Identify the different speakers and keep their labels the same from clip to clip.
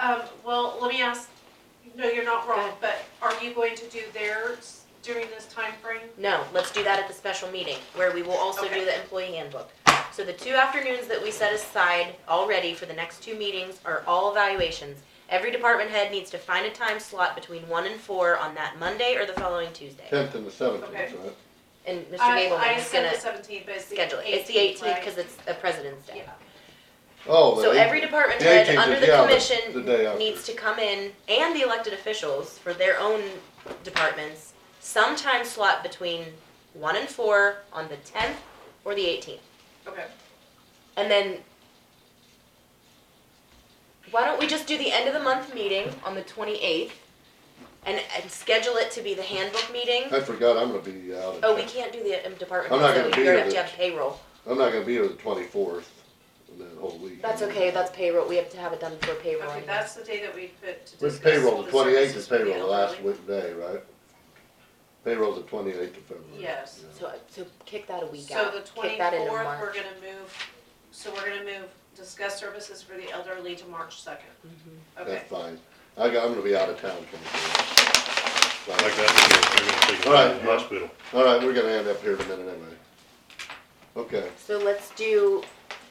Speaker 1: Um, well, let me ask, no, you're not
Speaker 2: Go
Speaker 1: wrong,
Speaker 2: ahead.
Speaker 1: but are you going to do theirs during this time frame?
Speaker 2: No, let's do that at the special meeting, where we will also
Speaker 1: Okay.
Speaker 2: do the employee handbook. So the two afternoons that we set aside already for the next two meetings are all evaluations. Every department head needs to find a time slot between one and four on that Monday or the following Tuesday.
Speaker 3: Tenth and the seventeenth,
Speaker 1: Okay.
Speaker 3: right?
Speaker 2: And Mr.
Speaker 1: I-
Speaker 2: Gableman is
Speaker 1: I
Speaker 2: gonna
Speaker 1: said the seventeenth, but it's the eighteenth,
Speaker 2: schedule it. It's the eighteenth, cause it's a President's Day.
Speaker 1: Yeah,
Speaker 3: Oh, the
Speaker 2: So
Speaker 3: eight-
Speaker 2: every department
Speaker 3: the
Speaker 2: head
Speaker 3: 18th
Speaker 2: under
Speaker 3: is-
Speaker 2: the
Speaker 3: yeah, the- the day
Speaker 2: commission
Speaker 3: after.
Speaker 2: needs to come in, and the elected officials for their own departments, sometime slot between one and four on the tenth or the eighteenth.
Speaker 1: okay.
Speaker 2: And then, why don't we just do the end of the month meeting on the twenty-eighth? And, and schedule it to be the handbook meeting?
Speaker 3: I forgot, I'm gonna be out. of
Speaker 2: Oh, we
Speaker 3: town.
Speaker 2: can't do the um, department.
Speaker 3: I'm not
Speaker 2: heads,
Speaker 3: gonna
Speaker 2: though.
Speaker 3: be
Speaker 2: You're
Speaker 3: here
Speaker 2: have to
Speaker 3: this-
Speaker 2: have payroll.
Speaker 3: I'm not gonna be here the twenty-fourth, and that whole week.
Speaker 2: That's okay, that's payroll, we have to have it done for payroll.
Speaker 1: Okay,
Speaker 2: anyway.
Speaker 1: that's the day that we put to discuss.
Speaker 3: With payroll,
Speaker 1: all
Speaker 3: the twenty-eighth
Speaker 1: services
Speaker 3: is
Speaker 1: for the
Speaker 3: payroll, the last
Speaker 1: elderly.
Speaker 3: week day, right? Payroll's the twenty-eighth of February.
Speaker 1: Yes.
Speaker 3: yeah.
Speaker 2: So, so kick that a week
Speaker 1: So
Speaker 2: out,
Speaker 1: the
Speaker 2: kick that into
Speaker 1: twenty-fourth, we're
Speaker 2: March.
Speaker 1: gonna move, so we're gonna move, discuss services for the elderly to March second. Okay,
Speaker 2: Mm-hmm.
Speaker 3: That's fine. I got, I'm gonna be out of town twenty-fourth.
Speaker 4: Like that, they're gonna take it
Speaker 3: All right,
Speaker 4: to the hospital.
Speaker 3: All right, we're gonna end up here in a minute anyway. Okay,
Speaker 2: So let's do,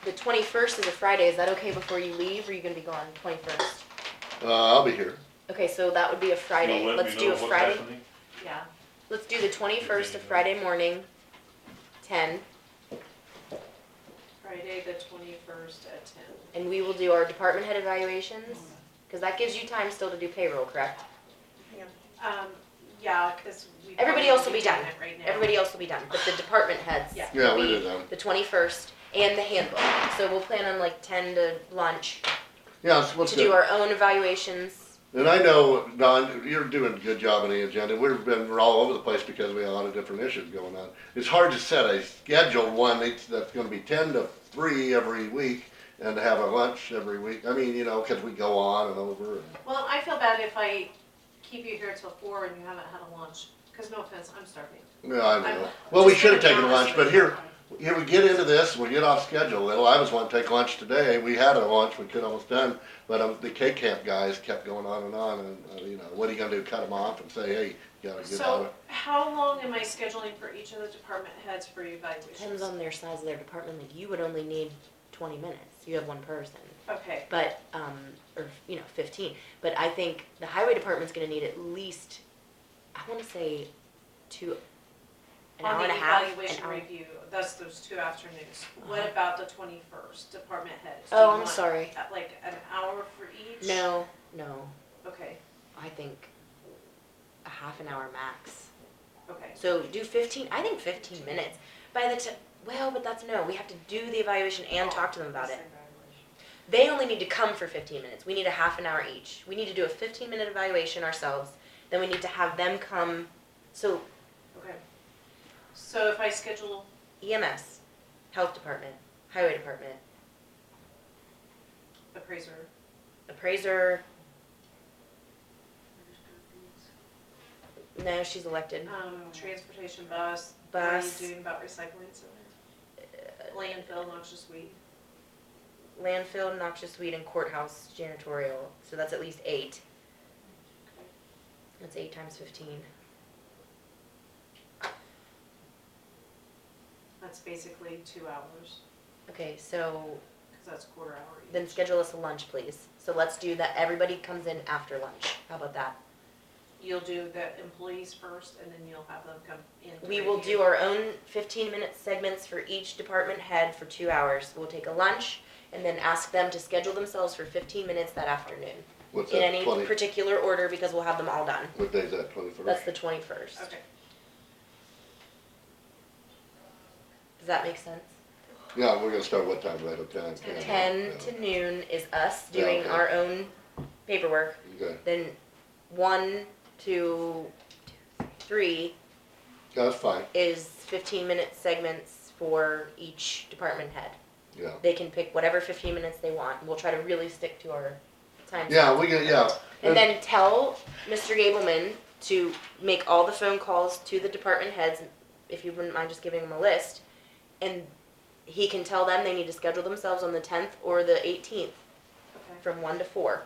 Speaker 2: the twenty-first is a Friday, is that okay before you leave, or are you gonna be gone twenty-first?
Speaker 3: uh, I'll be here.
Speaker 2: Okay, so that would be a Friday,
Speaker 4: You'll let
Speaker 2: let's
Speaker 4: me
Speaker 2: do
Speaker 4: know
Speaker 2: a
Speaker 4: what's
Speaker 2: Friday,
Speaker 4: happening?
Speaker 1: yeah,
Speaker 2: let's do the twenty-first, a
Speaker 4: Yeah.
Speaker 2: Friday morning, ten,
Speaker 1: Friday, the twenty-first at ten.
Speaker 2: and we will do our department head evaluations, cause that gives you time still to do payroll, correct?
Speaker 1: Um, yeah, cause we.
Speaker 2: Everybody
Speaker 1: probably
Speaker 2: else will be
Speaker 1: doing
Speaker 2: done.
Speaker 1: it Right now.
Speaker 2: Everybody else will be done, but the department heads
Speaker 1: Yeah.
Speaker 3: Yeah,
Speaker 2: will
Speaker 3: we
Speaker 2: be
Speaker 3: did that.
Speaker 2: the twenty-first, and the handbook, so we'll plan on like ten to lunch,
Speaker 3: Yeah, so what's
Speaker 2: to do
Speaker 3: good?
Speaker 2: our own evaluations.
Speaker 3: And I know, Don, you're doing a good job on the agenda. We've been, we're all over the place because we have a lot of different issues going on. It's hard to set a scheduled one that's, that's gonna be ten to three every week and to have a lunch every week. I mean, you know, cause we go on and over and.
Speaker 1: Well, I feel bad if I keep you here till four and you haven't had a lunch, cause no offense, I'm starving.
Speaker 3: Yeah, I
Speaker 1: I'm-
Speaker 3: know. Well, we
Speaker 1: just
Speaker 3: should have
Speaker 1: being
Speaker 3: taken
Speaker 1: honest
Speaker 3: lunch,
Speaker 1: with
Speaker 3: but
Speaker 1: you.
Speaker 3: here, here we get into this, we get off schedule a little. I was wanting to take lunch today. We had a lunch, we could almost done, but um, the K camp guys kept going on and on and, uh, you know, what are you gonna do? Cut them off and say, hey, you gotta get out of
Speaker 1: So
Speaker 3: it.
Speaker 1: how long am I scheduling for each of the department heads for
Speaker 2: Depends
Speaker 1: evaluations?
Speaker 2: on their size of their department, like you would only need twenty minutes, you have one person,
Speaker 1: Okay,
Speaker 2: but, um, or, you know, fifteen. But I think the highway department's gonna need at least, I wanna say, two, an hour
Speaker 1: on
Speaker 2: and
Speaker 1: the
Speaker 2: a half, an
Speaker 1: evaluation
Speaker 2: hour.
Speaker 1: review, that's those two afternoons.
Speaker 2: Uh-huh.
Speaker 1: What about the twenty-first, department heads? Do you
Speaker 2: Oh, I'm
Speaker 1: want,
Speaker 2: sorry,
Speaker 1: uh, Like an hour for each?
Speaker 2: no, no,
Speaker 1: Okay,
Speaker 2: I think a half an hour max.
Speaker 1: okay,
Speaker 2: So do fifteen, I think fifteen minutes, by the ti- well, but that's no, we have to do the evaluation and talk to them about it. They only need to come for fifteen minutes. We need a half an hour each. We need to do a fifteen minute evaluation ourselves. Then we need to have them come. So
Speaker 1: okay. So if I schedule,
Speaker 2: EMS, E health department, highway department,
Speaker 1: appraiser,
Speaker 2: appraiser. No, she's elected.
Speaker 1: um, transportation bus, what are you
Speaker 2: Oh. Bus, Uh,
Speaker 1: doing about recycling center? Landfill, noxious weed.
Speaker 2: landfill, noxious weed, and courthouse janitorial. So that's at least eight. That's eight times fifteen.
Speaker 1: That's basically two hours,
Speaker 2: Okay, so
Speaker 1: because that's quarter hour each.
Speaker 2: Then schedule us a lunch, please. So let's do that, everybody comes in after lunch. How about that?
Speaker 1: You'll do the employees first, and then you'll have them come in. to
Speaker 2: We will
Speaker 1: review.
Speaker 2: do our own fifteen minute segments for each department head for two hours. We'll take a lunch and then ask them to schedule themselves for fifteen minutes that afternoon.
Speaker 3: What's
Speaker 2: In
Speaker 3: that,
Speaker 2: any
Speaker 3: twenty,
Speaker 2: particular order because we'll have them all done.
Speaker 3: what day's that, twenty-first?
Speaker 2: That's the twenty-first.
Speaker 1: Okay,
Speaker 2: Does that make sense?
Speaker 3: Yeah, we're gonna start what time, right, okay? I can't-
Speaker 2: Ten
Speaker 3: yeah.
Speaker 2: to noon is us
Speaker 3: Yeah,
Speaker 2: doing
Speaker 3: okay.
Speaker 2: our own paperwork.
Speaker 3: Okay,
Speaker 2: Then one, two, three
Speaker 3: that's fine,
Speaker 2: is fifteen minute segments for each department head.
Speaker 3: yeah.
Speaker 2: They can pick whatever fifteen minutes they want, and we'll try to really stick to our time.
Speaker 3: Yeah, we get, yeah.
Speaker 2: And then tell Mr. Gableman to make all the phone calls to the department heads, if you wouldn't mind just giving him a list. And he can tell them they need to schedule themselves on the tenth or the eighteenth
Speaker 1: okay,
Speaker 2: from one to four.